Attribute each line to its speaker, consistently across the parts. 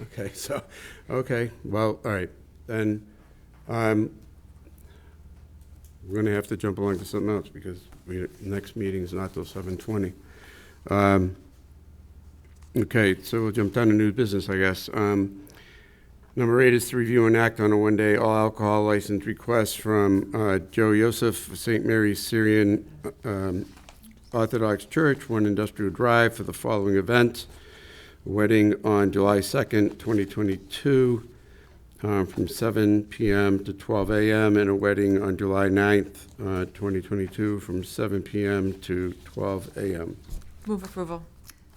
Speaker 1: Okay, so, okay, well, all right, then, um, we're gonna have to jump along to something else, because we, next meeting's not till seven twenty. Um, okay, so we'll jump down to new business, I guess. Um, number eight is to review and act on a one-day all alcohol license request from, uh, Joe Yosef, St. Mary's Syrian, um, Orthodox Church, One Industrial Drive, for the following events wedding on July 2nd, 2022, um, from 7 PM to 12 AM, and a wedding on July 9th, uh, 2022, from 7 PM to 12 AM.
Speaker 2: Move approval.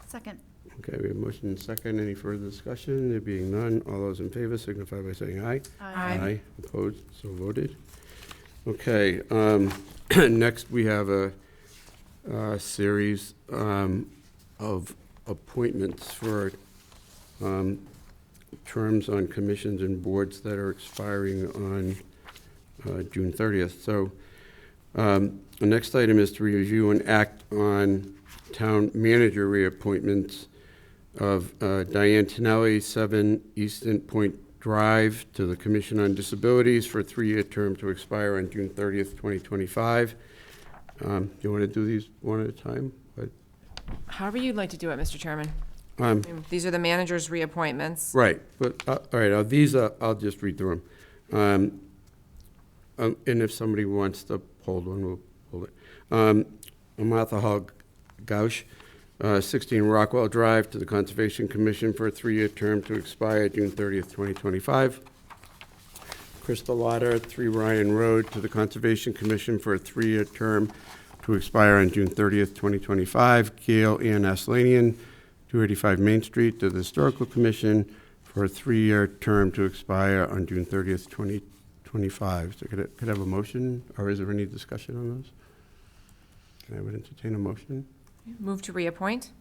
Speaker 3: Second.
Speaker 1: Okay, we have motion and second. Any further discussion? There being none, all those in favor signify by saying aye.
Speaker 2: Aye.
Speaker 1: Opposed, so voted. Okay, um, next we have a, uh series um, of appointments for um, terms on commissions and boards that are expiring on uh, June 30th. So um, the next item is to review and act on town manager reappointments of uh, Diane Tinelli, 7 Easton Point Drive, to the Commission on Disabilities for a three-year term to expire on June 30th, 2025. Um, Do you want to do these one at a time? But,
Speaker 2: However you'd like to do it, Mr. Chairman.
Speaker 1: um,
Speaker 2: I mean, These are the manager's reappointments.
Speaker 1: Right, but, uh, all right, uh, these, uh, I'll just read through them. And if somebody wants to hold one, we'll hold it. Um, Martha Hall Gausch, uh, 16 Rockwell Drive, to the Conservation Commission for a three-year term to expire June 30th, 2025. Krista Lauder, 3 Ryan Road, to the Conservation Commission for a three-year term to expire on June 30th, 2025. Gail Ann Aslanian, 285 Main Street, to the Historical Commission for a three-year term to expire on June 30th, 2025. So could I, could I have a motion, or is there any discussion on those? Can I would entertain a motion?
Speaker 2: Move to reappoint.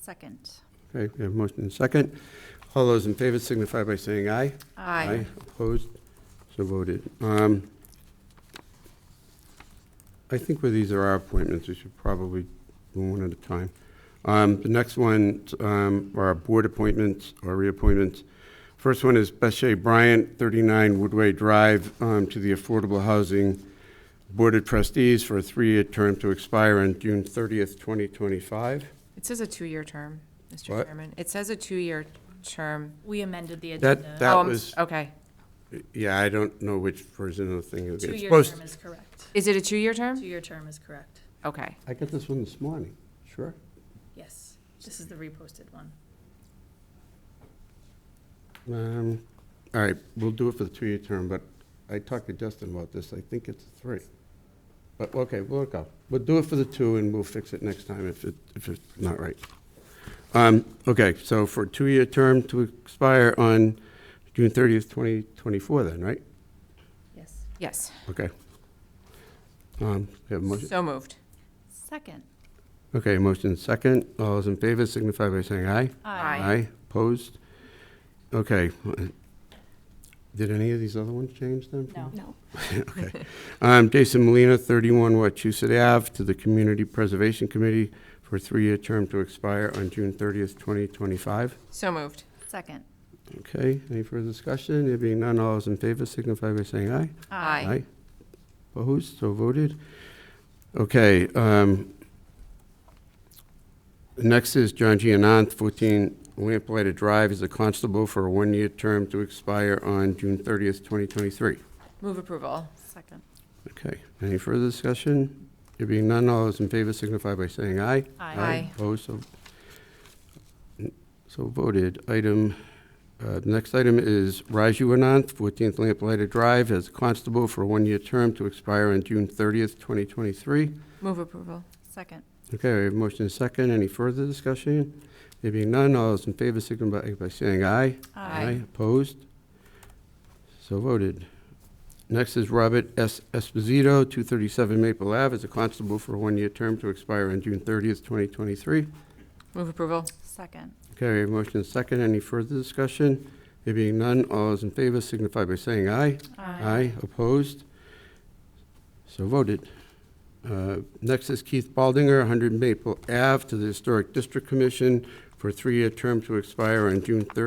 Speaker 3: Second.
Speaker 1: Okay, we have a motion and a second. All those in favor signify by saying aye.
Speaker 2: Aye.
Speaker 1: Opposed? So voted. Um, I think where these are our appointments, we should probably do one at a time. Um, The next one um, are our board appointments or reappointments. First one is Beshay Bryant, 39 Woodway Drive, um, to the Affordable Housing Board of Trustees for a three-year term to expire on June 30th, 2025.
Speaker 2: It says a two-year term, Mr.
Speaker 1: What?
Speaker 2: Chairman. It says a two-year term.
Speaker 3: We amended the
Speaker 1: That-
Speaker 3: agenda.
Speaker 1: that-
Speaker 2: Oh, I'm-
Speaker 1: was-
Speaker 2: Okay.
Speaker 1: Yeah, I don't know which version of the thing it is.
Speaker 3: Two-year
Speaker 1: Supposed-
Speaker 3: term is correct.
Speaker 2: Is it a two-year term?
Speaker 3: Two-year term is correct.
Speaker 2: Okay.
Speaker 1: I got this one this morning. Sure.
Speaker 3: Yes. This is the reposted one.
Speaker 1: Um, All right, we'll do it for the two-year term, but I talked to Justin about this, I think it's three. But, okay, we'll go. We'll do it for the two, and we'll fix it next time if it, if it's not right. Um, Okay, so for a two-year term to expire on June 30th, 2024 then, right?
Speaker 3: Yes.
Speaker 2: Yes.
Speaker 1: Okay. Um, we have a motion?
Speaker 2: So moved.
Speaker 3: Second.
Speaker 1: Okay, motion second. All those in favor signify by saying aye.
Speaker 2: Aye.
Speaker 1: Aye, opposed? Okay. Did any of these other ones change then? from-
Speaker 3: No.
Speaker 4: No.
Speaker 1: Okay. Um, Jason Molina, 31 Wachusett Ave, to the Community Preservation Committee for a three-year term to expire on June 30th, 2025.
Speaker 2: So moved.
Speaker 3: Second.
Speaker 1: Okay, any further discussion? There being none, all those in favor signify by saying aye.
Speaker 2: Aye.
Speaker 1: Opposed, so voted. Okay, um, next is John Gianant, 14 Lamplighter Drive, is a constable for a one-year term to expire on June 30th, 2023.
Speaker 2: Move approval.
Speaker 3: Second.
Speaker 1: Okay, any further discussion? There being none, all those in favor signify by saying aye.
Speaker 2: Aye.
Speaker 1: Opposed, so, so voted. Item, uh, the next item is Raju Anant, 14th Lamplighter Drive, as constable for a one-year term to expire on June 30th, 2023.
Speaker 2: Move approval.
Speaker 3: Second.
Speaker 1: Okay, we have motion and second. Any further discussion? There being none, all those in favor signify by saying aye.
Speaker 2: Aye.
Speaker 1: Opposed? So voted. Next is Robert S. Esposito, 237 Maple Ave, as a constable for a one-year term to expire on June 30th, 2023.
Speaker 2: Move approval.
Speaker 3: Second.
Speaker 1: Okay, we have motion and second. Any further discussion? There being none, all those in favor signify by saying aye. Aye. Opposed? So voted. Uh, Next is Keith Baldinger, 100 Maple Ave, to the Historic District Commission for a three-year term to expire on June 30th,